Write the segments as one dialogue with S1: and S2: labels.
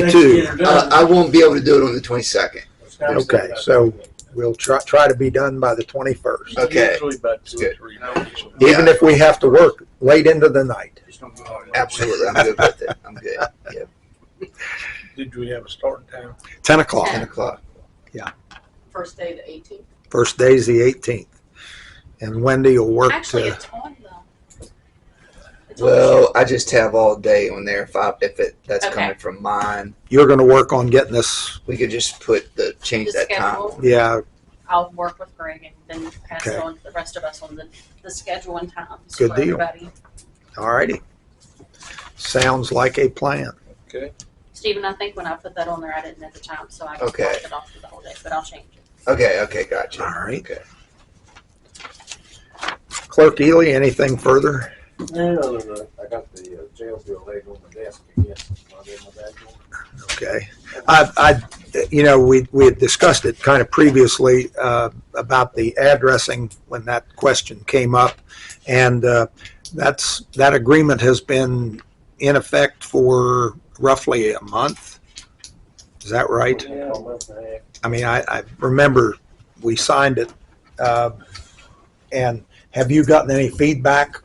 S1: 22.
S2: Uh, I won't be able to do it on the twenty-second.
S3: Okay, so we'll try, try to be done by the 21st,
S2: Okay.
S4: Usually about two or
S2: Good.
S4: three.
S2: Yeah.
S3: even if we have to work late into the night.
S2: Absolutely, I'm good with it. I'm good. Yeah,
S4: Did we have a starting time?
S3: 10 o'clock.
S2: ten o'clock.
S5: First day the eighteenth.
S3: First day's the 18th. And Wendy will work
S6: Actually,
S3: to,
S6: it's on though. It's on the
S2: Well, I just have all day on there. If I, if it that's
S6: Okay.
S2: coming from mine,
S3: you're going to work on getting this,
S2: we could just put the
S6: the
S2: change that time.
S6: schedule.
S3: yeah,
S6: I'll work with Greg and then pass it
S3: Okay.
S6: on to the rest of us on the, the schedule and times
S3: Good
S6: for
S3: deal.
S6: everybody.
S3: all righty. Sounds like a plan.
S4: Okay.
S6: Stephen, I think when I put that on there, I didn't at the time, so I just
S2: Okay.
S6: blocked it off for the whole day, but I'll change it.
S2: Okay, okay, gotcha.
S3: All right.
S2: Okay.
S3: Clerk Ely, anything further?
S7: No, no, no. I got the uh, jail bill laying on my desk again. Not in my bag.
S3: Okay. I, I, you know, we, we had discussed it kind of previously, uh, about the addressing when that question came up. And, uh, that's, that agreement has been in effect for roughly a month. Is that right?
S7: Yeah, a month and a half.
S3: I mean, I, I remember we signed it. Uh, and have you gotten any feedback?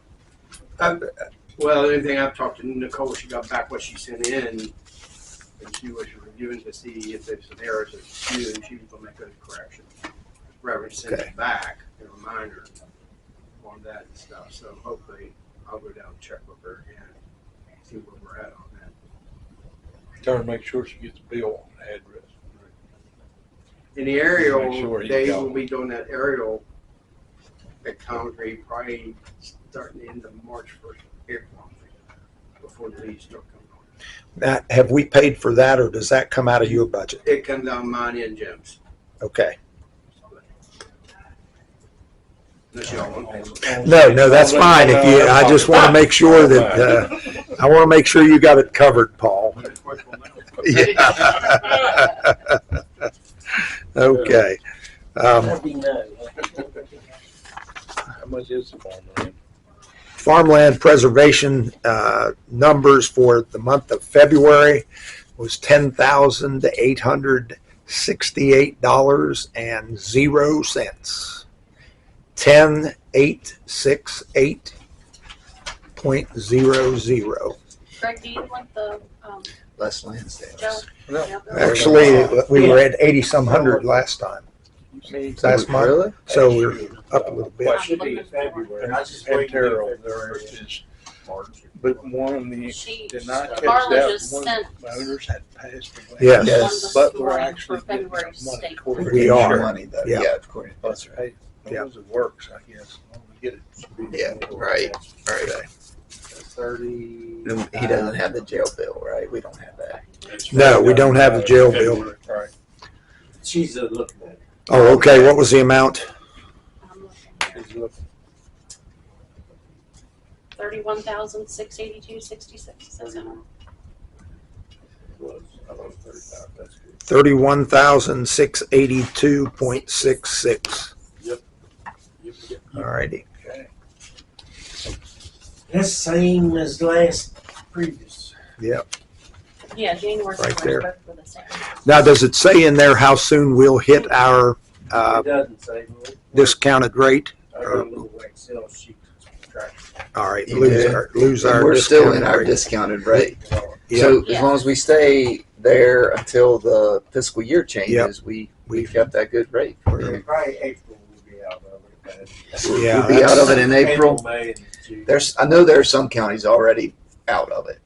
S8: Well, the only thing I've talked to Nicole, she got back what she sent in, and she was reviewing to see if there's some errors that she knew, and she was gonna make those corrections. Reverend sent
S3: Okay.
S8: it back, a reminder on that and stuff, so hopefully I'll go down and check with her again, see where we're at on that.
S4: Trying to make sure she gets the bill address.
S8: In the aerial,
S4: Make sure you
S8: they
S4: go.
S8: will be doing that aerial at Congre probably starting the end of March first, April, before the leaves start coming on.
S3: Now, have we paid for that or does that come out of your budget?
S8: It comes out of mine and Jim's.
S3: Okay.
S8: Unless y'all want to pay.
S3: No, no, that's fine. If you, I just want to make sure that, uh, I want to make sure you got it covered, Paul. uh, Yeah. Okay. Um,
S4: How much is the phone ring?
S3: farmland preservation, uh, numbers for the month of February was ten thousand eight hundred sixty-eight dollars and zero cents. Ten eight six eight point zero zero.
S6: Greg, do you want the, um,
S2: Les Lansdale.
S6: Joe?
S4: No.
S6: Yeah.
S3: Actually, we were at eighty some hundred last time, last month, so we're up a little bit.
S4: Well, it should be in February.
S7: And I just
S4: And
S7: waited
S4: Terrell,
S7: until
S4: there
S7: February.
S4: is,
S7: March.
S4: but one of the
S6: She,
S4: did not catch
S6: Carla
S4: that,
S6: just
S4: one
S6: sent
S4: of the owners had passed away.
S3: Yes.
S6: one this
S4: But we're
S6: morning for
S4: actually getting
S6: February
S4: some money.
S6: state.
S4: toward
S3: We
S4: it.
S3: are.
S2: Money though,
S3: Yeah.
S2: yeah, of course.
S4: That's right.
S3: Yeah.
S4: Those it works, I guess. When we Get it.
S2: Yeah, right, right.
S7: Thirty.
S2: No, He doesn't have the jail bill, right? We don't have that.
S3: No, we don't have the jail bill.
S4: Right.
S7: She's uh, looking at it.
S3: Oh, okay, what was the amount?
S6: I'm looking.
S7: She's looking.
S6: Thirty-one thousand, six eighty-two, sixty-six, says it on.
S7: Well, I thought it was thirty-five. That's good.
S3: Thirty-one thousand six eighty-two point six six.
S7: Yep, yep.
S3: Alrighty.
S1: That's same as last previous.
S6: Yeah, January.
S3: Right
S6: February, both were the same.
S3: Now, does it say in there how soon we'll hit our, uh,
S7: It doesn't say. well,
S3: discounted rate?
S7: I got a little
S3: uh,
S7: Excel sheet. that's tracking
S3: Alright, lose our, lose our.
S2: We're still in our
S3: discounted rate.
S2: discounted rate.
S7: it all.
S3: Yeah,
S2: So as long as we stay there until the fiscal year changes, we, we've got that good rate.
S3: we're-
S7: Probably April will be out of it.
S3: Yeah,
S2: We'll be out of it in
S7: but
S2: April.
S7: May, and June.
S2: There's, I know there are some counties already out of it.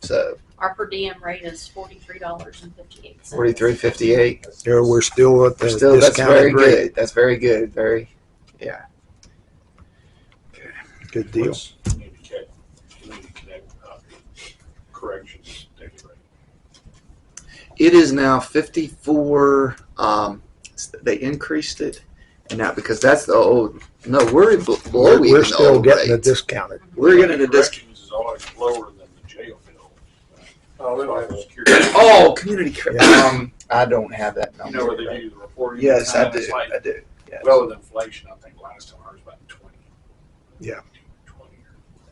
S2: So
S6: Our per diem rate is forty-three dollars and fifty-eight cents.
S2: forty-three, fifty-eight,
S3: yeah, we're still at the
S2: still, that's very
S3: discounted rate.
S2: good. That's very good, very,
S3: Good deal.
S7: Need to check, we need to connect, uh, corrections, that's right.
S2: it is now fifty-four, um, they increased it. And now, because that's the old, no, we're below
S3: We're
S2: even
S3: we're
S2: the
S3: still
S2: old
S3: getting the
S2: rate.
S3: discounted.
S2: We're getting the discount.
S7: Corrections is always lower than the jail bill.
S8: Oh, we don't have a
S2: Oh, community. cor-
S3: Yeah.
S2: Um, I don't have that
S7: You
S2: number.
S7: know where they do the reporting.
S2: Yes, I
S7: Sometimes
S2: do.
S7: it's like-
S2: I do. Yes.
S7: Well, with inflation, I think last time ours was about twenty.
S3: Yeah.
S7: Twenty,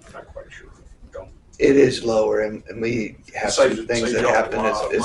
S7: or- not quite sure, don't
S2: It is lower, and, and we have some
S7: Saves-
S2: things
S7: saves
S2: that
S7: y'all a
S2: happen.
S7: lot
S2: It's,
S7: of
S2: it's